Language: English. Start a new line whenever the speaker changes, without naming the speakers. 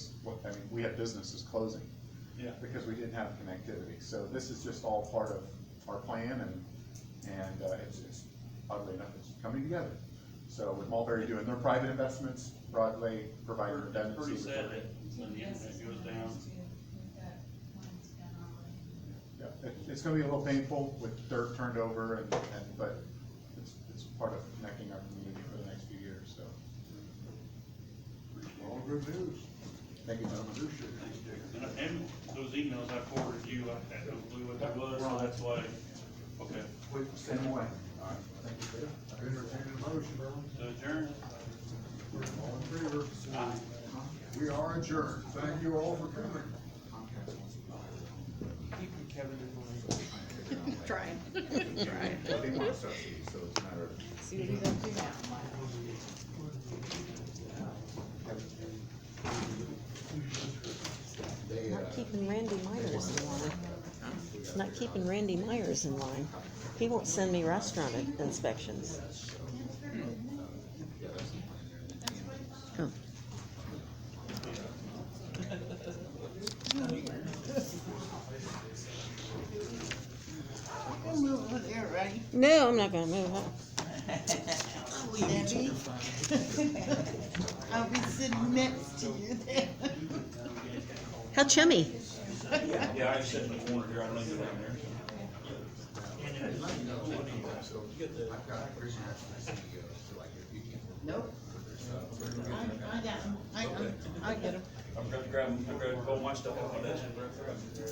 we have businesses closing
Yeah.
because we didn't have connectivity. So this is just all part of our plan and, and uh, it's, it's oddly enough, it's coming together. So with Mulberry doing their private investments, Broadway providing
It's
redundancy.
Pretty
with
sad
their-
that when the internet goes down,
Yeah, it, it's gonna be a little painful with dirt turned over and, and, but it's, it's part of connecting our community for the next few years, so.
All good news.
Thank you,
I
gentlemen.
appreciate it, Dick.
and, and those emails I forwarded you, I had no clue what that was, so that's why, okay.
Wait, stand away. All right. Entertain a motion.
So adjourn.
All in favor?
Aye.
We are adjourned. Thank you all for coming.
Trying, trying.
They want subsidies, so it's a matter of.
See what he's up to now.
Not keeping Randy Myers in line. Not keeping Randy Myers in line. He won't send me restaurant in- inspections. Oh.
Move over there, ready?
No, I'm not gonna move up.
Debbie? I'll be sitting next to you there.
How chummy.
Yeah, I just said in the corner here, I don't even know down there.
Nope. I, I got 'em. I, I, I get 'em.
I'm gonna grab, I'm gonna go watch the whole of that.